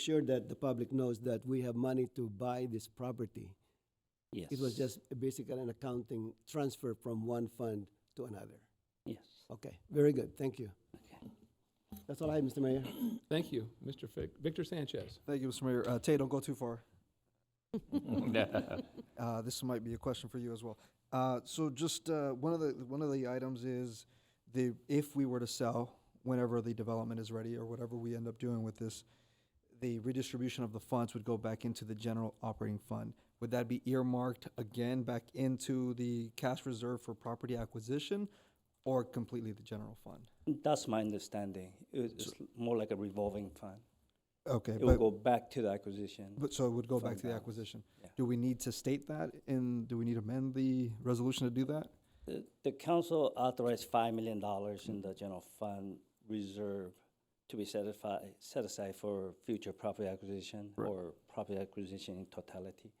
sure that the public knows that we have money to buy this property. Yes. It was just basically an accounting transfer from one fund to another. Yes. Okay, very good, thank you. Okay. That's all I have, Mr. Mayor. Thank you, Mr. Fic- Victor Sanchez. Thank you, Mr. Mayor. Uh, Tay, don't go too far. Uh, this might be a question for you as well. Uh, so just, uh, one of the, one of the items is the, if we were to sell, whenever the development is ready or whatever we end up doing with this, the redistribution of the funds would go back into the general operating fund. Would that be earmarked again back into the cash reserve for property acquisition or completely the general fund? That's my understanding. It- It's more like a revolving fund. Okay, It will but, go back to the acquisition. but so it would go back fund to the balance. acquisition. Yeah. Do we need to state that and do we need to amend the resolution to do that? The- Uh, The council authorized five million dollars in the general fund reserve to be set aside, set aside for future property acquisition Right. or property acquisition in totality.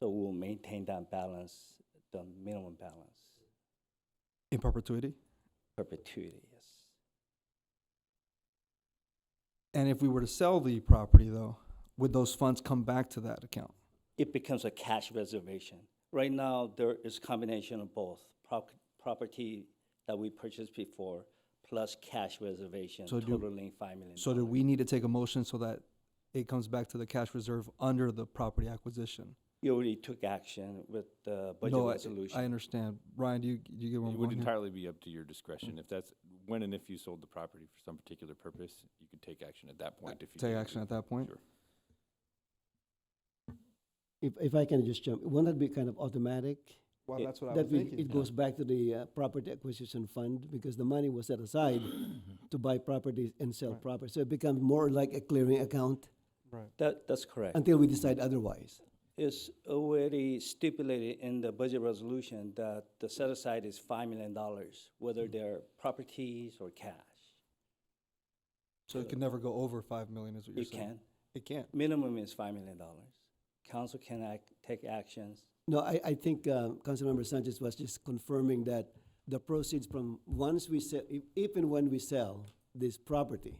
So we'll maintain that balance, the minimum balance In perpetuity? perpetuity, yes. And if we were to sell the property though, would those funds come back to that account? it becomes a cash reservation. Right now, there is combination of both, prop- property that we purchased before, plus cash reservation So do- totaling five million. So do we need to take a motion so that it comes back to the cash reserve under the property acquisition? You already took action with the budget No, I- resolution. I understand. Ryan, do you, do you get one? It would entirely be up to your discretion. If that's, when and if you sold the property for some particular purpose, you could take action at that point if you. Uh, Take needed action to. at that point? Sure. If, if I can just jump, won't that be kind of automatic? Well, It- that's what I was That we- thinking. it goes back to the uh, property acquisition fund because the money was set aside to buy properties and sell Right. properties. So it becomes more like a clearing account Right. That, that's correct. until we decide otherwise. It's already stipulated in the budget resolution that the set aside is five million dollars, whether Mm-hmm. they're properties or cash. So it can never go over five million is what you're It saying? can, It can't. minimum is five million dollars. Council can act, take actions No, I, I think uh, Councilmember Sanchez was just confirming that the proceeds from, once we sell, if- if and when we sell this property,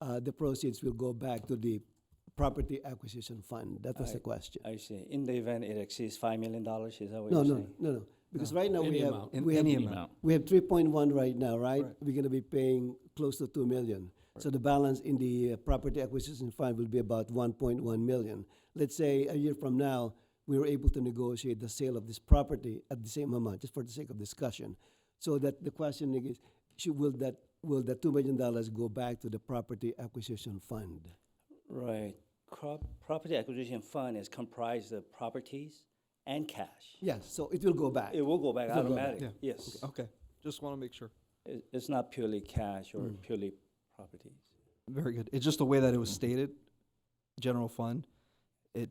uh, the proceeds will go back to the property acquisition fund. That was the I- question. I see. In the event it exceeds five million dollars, is that what No, you're no, saying? no, no, because right now we Any have, amount. In we have, any amount. we have three point one right now, right? Right. We're gonna be paying close to two million. So the balance in the uh, property acquisition fund will be about one point one million. Let's say a year from now, we were able to negotiate the sale of this property at the same amount, just for the sake of discussion. So that the question is, should, will that, will that two million dollars go back to the property acquisition fund? Right. Crop, property acquisition fund is comprised of properties and cash. Yes, so it will go back. It will go back It will go back, automatic, yeah. yes. Okay, just want to make sure. It, it's not purely cash or Mm. purely properties. Very good. It's just the way that it was stated, general fund. It,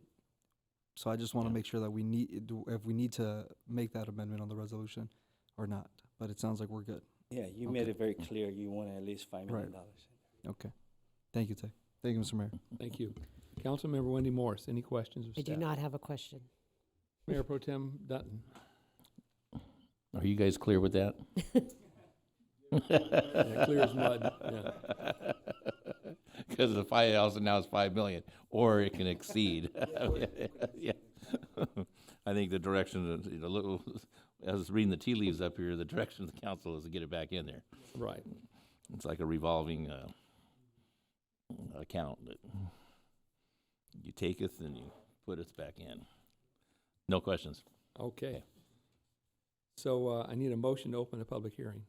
so I just want to Yeah. make sure that we need, it- do- if we need to make that amendment on the resolution or not, but it sounds like we're good. Yeah, you made Okay. it very Mm. clear you want at least five million dollars. Thank you, Tay. Thank you, Mr. Mayor. Thank you. Councilmember Wendy Morris, any questions of I staff? do not have a question. Mayor Pro Tem Dutton. Are you guys clear with that? Yeah, clear as mud, yeah. Because the five thousand now is five million, or it can exceed. Yeah. I think the direction, of the- the little, I was reading the tea leaves up here, the direction of the council is to get it back in there. Right. It's like a revolving, uh, account that you taketh and you putteth back in. No questions. Okay. So uh, I need a motion to open a public hearing.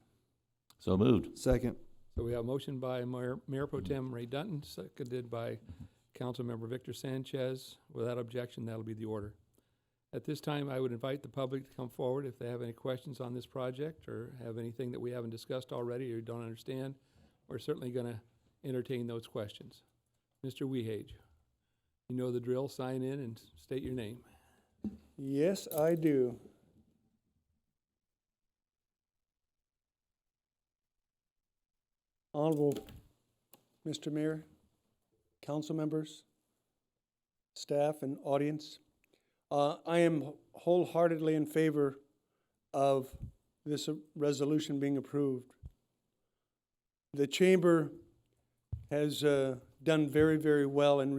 So moved. Second. So we have a motion by Mayor, Mayor Pro Tem Ray Dutton, seconded by Councilmember Victor Sanchez. Without objection, that'll be the order. At this time, I would invite the public to come forward if they have any questions on this project or have anything that we haven't discussed already or don't understand. We're certainly going to entertain those questions. Mr. Wehage, you know the drill, sign in and state your name. Yes, I do. Honorable Mr. Mayor, council members, staff, and audience, uh, I am wholeheartedly in favor of this uh, resolution being approved. The chamber has uh, done very, very well in